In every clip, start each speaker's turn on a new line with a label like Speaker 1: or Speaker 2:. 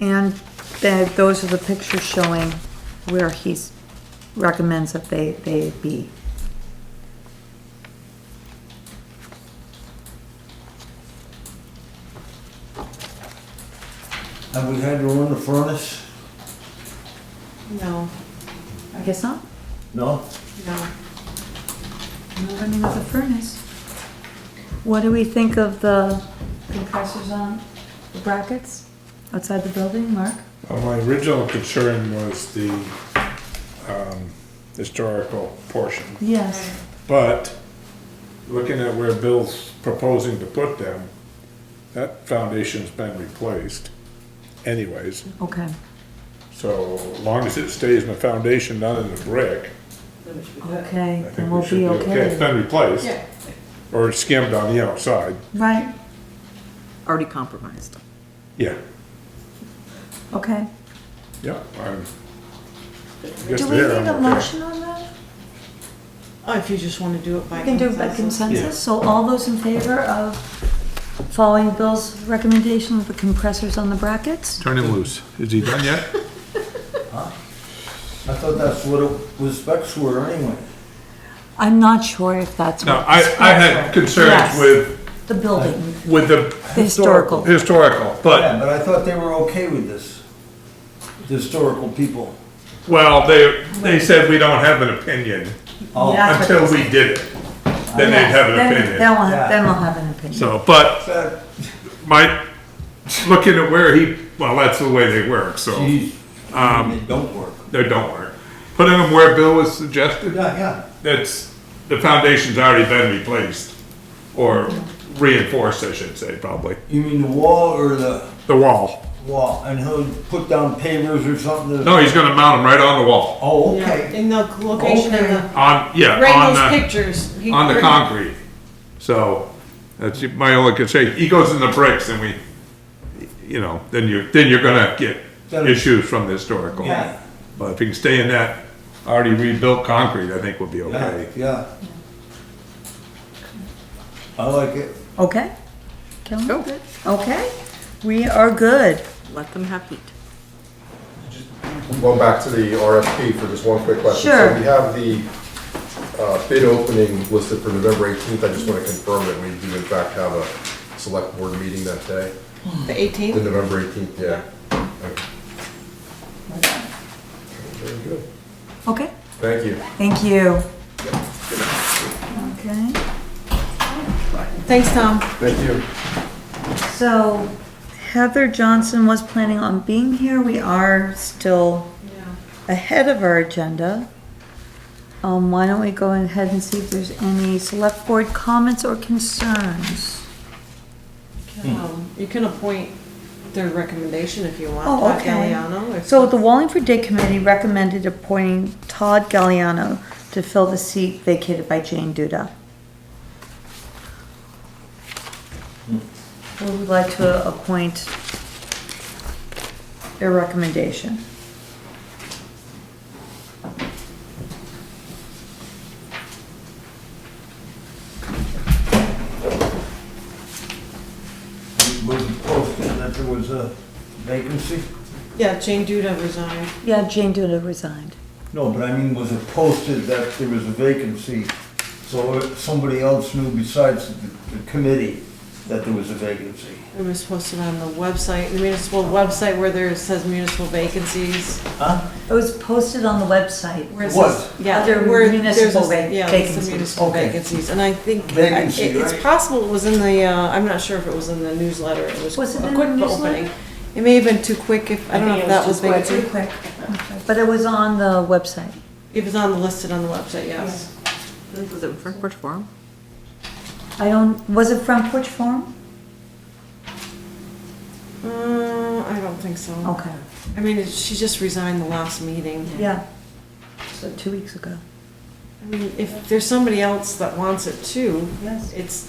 Speaker 1: And that, those are the pictures showing where he's, recommends that they, they be.
Speaker 2: Have we had to run the furnace?
Speaker 3: No,
Speaker 1: I guess not.
Speaker 2: No?
Speaker 3: no.
Speaker 1: No running of the furnace. What do we think of the compressors on the brackets outside the building, Mark?
Speaker 4: Well, Uh, my original concern was the um, historical portion,
Speaker 1: Yes.
Speaker 4: but looking at where Bill's proposing to put them, that foundation's been replaced anyways,
Speaker 1: Okay.
Speaker 4: so as long as it stays in the foundation, not in the brick,
Speaker 1: Okay,
Speaker 4: I think
Speaker 1: then
Speaker 4: we
Speaker 1: we'll
Speaker 4: should be okay. It's been replaced,
Speaker 3: Yeah.
Speaker 4: or skimmed on the outside,
Speaker 1: Right,
Speaker 5: already compromised.
Speaker 4: yeah,
Speaker 1: okay.
Speaker 4: yeah, I'm. I guess
Speaker 1: Do we need
Speaker 4: there I'm
Speaker 1: a
Speaker 4: okay.
Speaker 1: motion on that?
Speaker 3: Oh, if you just wanna do it by
Speaker 1: We can do it by
Speaker 3: consensus.
Speaker 1: consensus, so all those in favor of following Bill's recommendation of the compressors on the brackets?
Speaker 4: Turn him loose, is he done yet?
Speaker 2: I thought that's what it was specs were anyway.
Speaker 1: I'm not sure if that's
Speaker 4: No,
Speaker 1: what.
Speaker 4: I, I had concerns
Speaker 1: Yes.
Speaker 4: with
Speaker 1: The building,
Speaker 4: with the
Speaker 1: the historical.
Speaker 4: historical, but,
Speaker 2: Yeah, but I thought they were okay with this, the historical people.
Speaker 4: well, they, they said we don't have an opinion
Speaker 2: Oh,
Speaker 1: That's what
Speaker 4: until we did it. Then they'd
Speaker 1: Yes,
Speaker 4: have an
Speaker 1: then- Then
Speaker 4: opinion.
Speaker 1: we'll, have- then
Speaker 2: Yeah.
Speaker 1: we'll have an opinion.
Speaker 4: So, but
Speaker 2: that,
Speaker 4: my, looking at where he, well, that's the way they work, so
Speaker 2: geez,
Speaker 4: Um,
Speaker 2: it don't work.
Speaker 4: they don't work. Putting them where Bill was suggested,
Speaker 2: Yeah, yeah.
Speaker 4: that's, the foundation's already been replaced or reinforced, I should say, probably.
Speaker 2: You mean the wall or the
Speaker 4: The wall.
Speaker 2: wall? And he'll put down pavers or something? to-
Speaker 4: No, he's gonna mount them right on the wall.
Speaker 2: Oh,
Speaker 3: Yeah,
Speaker 2: okay.
Speaker 3: in the location of the,
Speaker 4: On, yeah,
Speaker 3: right
Speaker 4: on
Speaker 3: in
Speaker 4: the.
Speaker 3: those pictures. he-
Speaker 4: on the concrete. So that's my only concern. He goes in the bricks and we, you know, then you're, then you're gonna get
Speaker 2: Then-
Speaker 4: issues from the historical.
Speaker 2: Yeah.
Speaker 4: But if you can stay in that already rebuilt concrete, I think we'll be
Speaker 2: Yeah,
Speaker 4: okay.
Speaker 2: yeah. I like it.
Speaker 1: Okay? Kelly?
Speaker 5: Go.
Speaker 1: Okay, we are good.
Speaker 5: Let them have heat.
Speaker 6: Going back to the RFP for just one quick question.
Speaker 1: Sure.
Speaker 6: So we have the uh, bid opening listed for November 18th. I just want to confirm that we do in fact have a select board meeting that day,
Speaker 3: The
Speaker 6: the
Speaker 3: eighteenth,
Speaker 6: November 18th, yeah. Okay. Very good.
Speaker 1: Okay,
Speaker 6: Thank you.
Speaker 1: thank you. Okay,
Speaker 3: thanks, Tom.
Speaker 6: Thank you.
Speaker 1: so Heather Johnson was planning on being here. We are still ahead of our agenda. Um, why don't we go ahead and see if there's any select board comments or concerns?
Speaker 3: Um, You can appoint their recommendation if you want,
Speaker 1: Oh,
Speaker 3: Todd
Speaker 1: okay.
Speaker 3: Galliano. if-
Speaker 1: So the Wallingford Day Committee recommended appointing Todd Galliano to fill the seat vacated by Jane Duda. We would like to appoint a recommendation.
Speaker 2: Was it posted that there was a vacancy?
Speaker 3: Yeah, Jane Duda resigned.
Speaker 1: Yeah, Jane Duda resigned.
Speaker 2: No, but I mean, was it posted that there was a vacancy? So if somebody else knew besides the the committee that there was a vacancy?
Speaker 3: It was posted on the website, the municipal website where there says municipal vacancies.
Speaker 2: Huh?
Speaker 1: It was posted on the website.
Speaker 3: Where it
Speaker 2: What?
Speaker 3: says- Yeah.
Speaker 1: Other
Speaker 3: where
Speaker 1: municipal
Speaker 3: there's a-
Speaker 1: vac-
Speaker 3: yeah, there's some
Speaker 1: vacancies.
Speaker 3: Municipal
Speaker 2: Okay.
Speaker 3: vacancies, and I think, I-
Speaker 2: Vacancy,
Speaker 3: it- it's
Speaker 2: right.
Speaker 3: possible it was in the, uh, I'm not sure if it was in the newsletter, it was
Speaker 1: Was it
Speaker 3: a
Speaker 1: in
Speaker 3: quick
Speaker 1: the
Speaker 3: opening.
Speaker 1: newsletter?
Speaker 3: It may have been too quick if, I don't know if that was vacancy.
Speaker 1: Too quick. But it was on the website.
Speaker 3: It was on the, listed on the website, yes.
Speaker 5: Was it in Frankfurt Forum?
Speaker 1: I don't, was it from Porch Forum?
Speaker 3: Uh, I don't think so.
Speaker 1: Okay,
Speaker 3: I mean, it- she just resigned the last meeting.
Speaker 1: yeah. So two weeks ago.
Speaker 3: I mean, if there's somebody else that wants it too,
Speaker 1: Yes.
Speaker 3: it's,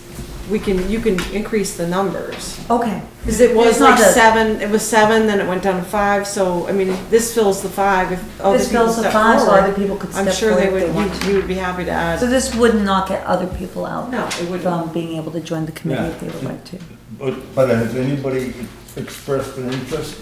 Speaker 3: we can, you can increase the numbers.
Speaker 1: Okay.
Speaker 3: Because it was
Speaker 1: It's not
Speaker 3: like
Speaker 1: a-
Speaker 3: seven, it was seven, then it went down to five, so, I mean, this fills the five if other
Speaker 1: This
Speaker 3: people
Speaker 1: fills the
Speaker 3: step
Speaker 1: five, so
Speaker 3: forward.
Speaker 1: other people could
Speaker 3: I'm
Speaker 1: step
Speaker 3: sure they
Speaker 1: forward if
Speaker 3: would,
Speaker 1: they want
Speaker 3: we- we would be happy to
Speaker 1: So
Speaker 3: add.
Speaker 1: this would not get other people out?
Speaker 3: No, it wouldn't.
Speaker 1: From being able to join the committee if they would like to?
Speaker 2: But, but has anybody expressed an interest?